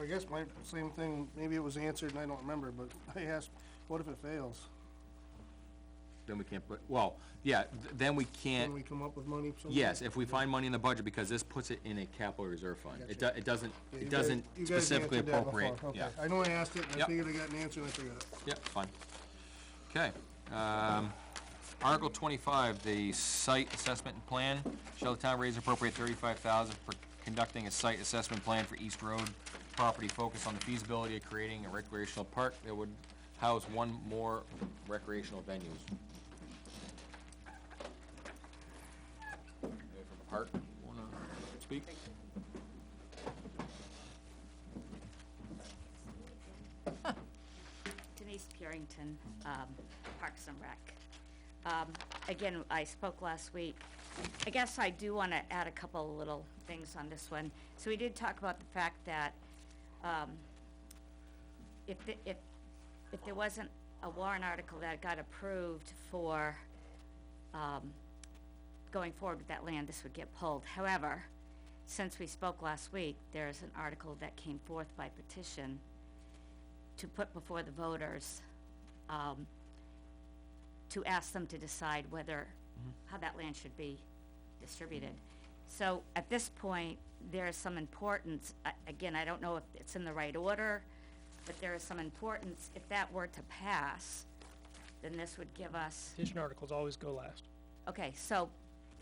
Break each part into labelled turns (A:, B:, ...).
A: I guess my same thing, maybe it was answered and I don't remember, but I asked, what if it fails?
B: Then we can't put, well, yeah, th- then we
A: Can
B: can't,
A: we come up with money somewhere?
B: yes, if we find money in the budget, because this puts it in a capital reserve fund. It do,
A: Gotcha.
B: it doesn't,
A: Yeah, you
B: it
A: guys-
B: doesn't
A: you guys
B: specifically
A: answered that before.
B: appropriate,
A: Okay.
B: yeah,
A: I know I asked it, and I
B: Yep.
A: figured I got an answer, and I forgot it.
B: yeah, fine. Okay, um, Article twenty-five, the site assessment and plan. Shall the town raise and appropriate thirty-five thousand for conducting a site assessment plan for East Road property focused on the feasibility of creating a recreational park that would house one more recreational venues? Anybody from Park, wanna speak?
C: Denise Purington, um, Parks and Rec. Um, Again, I spoke last week. I guess I do want to add a couple little things on this one. So we did talk about the fact that um, if, the- if, if there wasn't a warrant article that got approved for um, going forward with that land, this would get pulled. However, since we spoke last week, there is an article that came forth by petition to put before the voters, um, to ask them to decide whether, how that land should be distributed. So at this point, there is some importance, I- again, I don't know if it's in the right order, but there is some importance, if that were to pass, then this would give us
D: Petition articles always go last.
C: Okay, so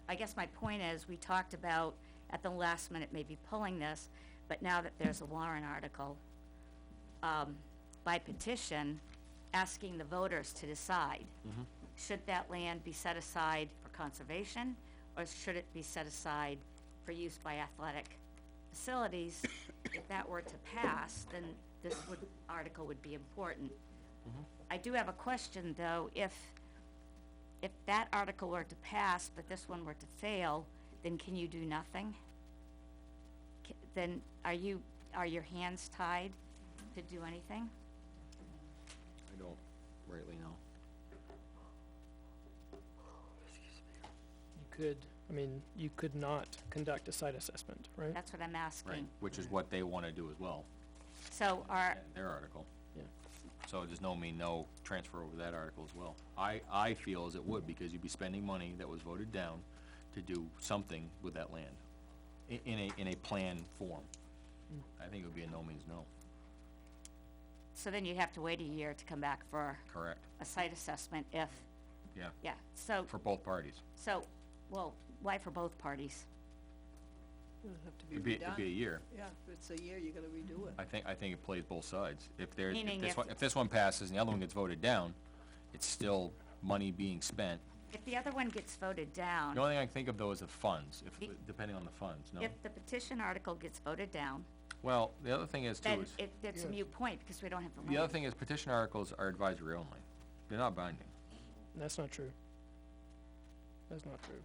C: I guess my point is, we talked about at the last minute maybe pulling this, but now that there's a warrant article, um, by petition, asking the voters to decide, should that land be set aside for conservation, or should it be set aside for use by athletic facilities? If that were to pass, then this would, article would be important. I do have a question, though, if if that article were to pass, but this one were to fail, then can you do nothing? Ca- Then are you, are your hands tied to do anything?
B: I don't rightly know.
D: You could, I mean, you could not conduct a site assessment, right?
C: That's what I'm
B: Right,
C: asking.
B: which is what they wanna do as well,
C: So are,
B: in their article.
D: Yeah.
B: So there's no mean no transfer over that article as well. I, I feel as it would, because you'd be spending money that was voted down to do something with that land, i- in a, in a plan form. I think it would be a no means no,
C: so then you'd have to wait a year to come back for
B: correct,
C: a site assessment if,
B: yeah,
C: yeah, so,
B: for both parties.
C: so, well, why for both parties?
E: It'll have to be
B: It'd be, it'd be a
E: redone.
B: year.
E: Yeah, if it's a year, you gotta redo it.
B: I think, I think it plays both sides. If there's, if
C: Meaning
B: this
C: if-
B: one, if this one passes and the other one gets voted down, it's still money being spent.
C: If the other one gets voted
B: The
C: down,
B: only thing I can think of though is the funds, if,
C: Y-
B: depending on the funds, no?
C: if the petition article gets voted down,
B: Well, the other thing is too
C: then
B: is.
C: it, it's a mute point because we don't have the land.
B: The other thing is petition articles are advisory only. They're not binding.
D: And That's not true. That's not true.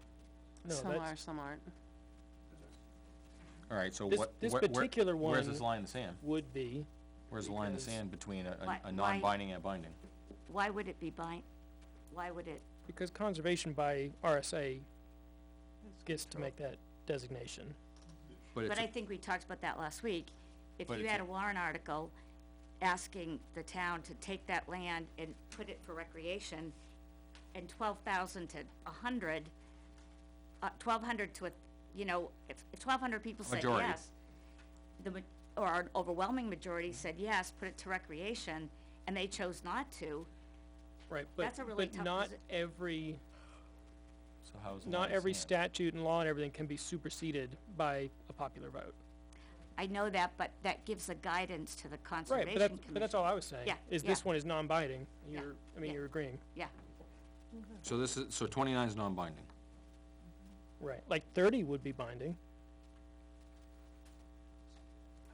D: No,
F: Some are,
D: that's,
F: some aren't.
B: All right, so
D: This-
B: what,
D: this
B: where, where-
D: particular
B: where's this
D: one-
B: line in the sand?
D: would be,
B: Where's the line in the
D: Because-
B: sand between a-
C: Why-
B: a, a
C: why-
B: non-binding and a binding?
C: Why would it be bind, why would it
D: because conservation by RSA gets to make that designation.
B: But it's,
C: But I
B: a-
C: think we talked about that last week. If
B: But
C: you
B: it's
C: had
B: a-
C: a warrant article asking the town to take that land and put it for recreation, and twelve thousand to a hundred, uh, twelve hundred to a, you know, if, if twelve hundred people said
B: Majority.
C: yes, the, ma- or an overwhelming majority said yes, put it to recreation, and they chose not to,
D: Right, but,
C: That's a really
D: but
C: tough
D: not
C: posi-
D: every,
B: so how's the line
D: not
B: in the
D: every
B: sand?
D: statute and law and everything can be superseded by a popular vote.
C: I know that, but that gives a guidance to the Conservation
D: Right, but that's,
C: Commission.
D: but that's all I was saying,
C: Yeah,
D: is
C: yeah.
D: this one is non-binding.
C: Yeah,
D: You're, I mean,
C: yeah.
D: you're agreeing.
C: Yeah,
B: So this is, so twenty-nine is non-binding.
D: Right, like thirty would be binding.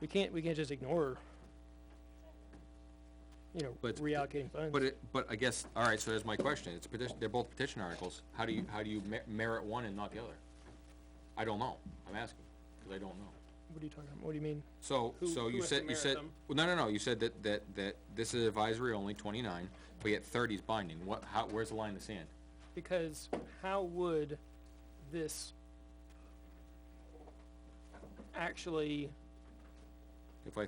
D: We can't, we can't just ignore, you know,
B: But-
D: reallocating funds.
B: But it, but I guess, all right, so there's my question. It's petition, they're both petition articles. How do you, how do you mer- merit one and not the other? I don't know. I'm asking, because I don't know.
D: What are you talking about? What do you mean?
B: So,
D: Who-
B: so
D: who
B: you
D: has to
B: said, you
D: merit
B: said,
D: them?
B: well, no, no, no, you said that, that, that this is advisory only, twenty-nine, but yet thirty is binding. What, how, where's the line in the sand?
D: Because how would this actually
B: If I